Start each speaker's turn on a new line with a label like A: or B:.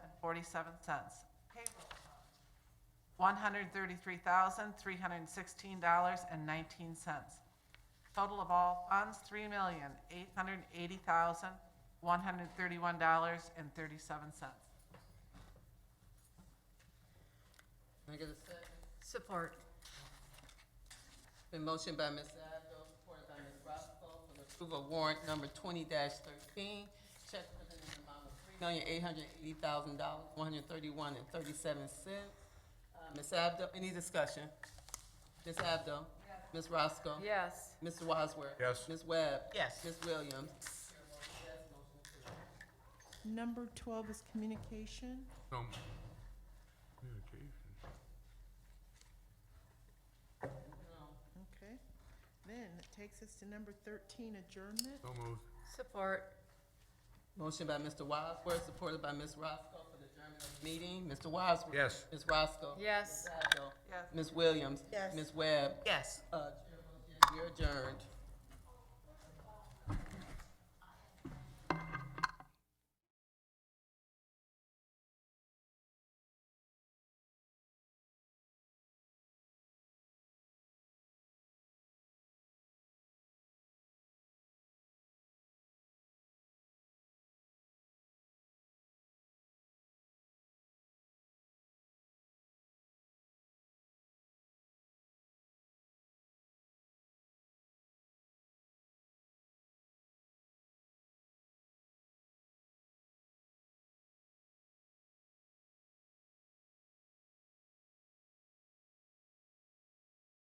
A: forty-seven cents. Payroll one hundred thirty-three thousand, three hundred and sixteen dollars and nineteen cents. Total of all funds, three million, eight hundred and eighty thousand, one hundred and thirty-one dollars and thirty-seven cents.
B: Can I get a second?
C: Support.
B: Been motion by Ms. Addo, supported by Ms. Roscoe, for the approval of warrant number twenty thirteen. Check presented in the amount of three million, eight hundred eighty thousand dollars, one hundred thirty-one and thirty-seven cents. Uh, Ms. Abdo, any discussion? Ms. Abdo? Ms. Roscoe?
C: Yes.
B: Mr. Wadsworth?
D: Yes.
B: Ms. Webb?
E: Yes.
B: Ms. Williams?
F: Number 12 is communication.
D: So moved. Communication.
F: Okay. Then it takes us to number 13, adjournment.
D: So moved.
C: Support.
B: Motion by Mr. Wadsworth, supported by Ms. Roscoe, for the adjournment of the meeting. Mr. Wadsworth?
D: Yes.
B: Ms. Roscoe?
C: Yes.
B: Ms. Abdo?
A: Yes.
B: Ms. Williams?
E: Yes.
B: Ms. Webb?
E: Yes.
B: Uh, You're adjourned.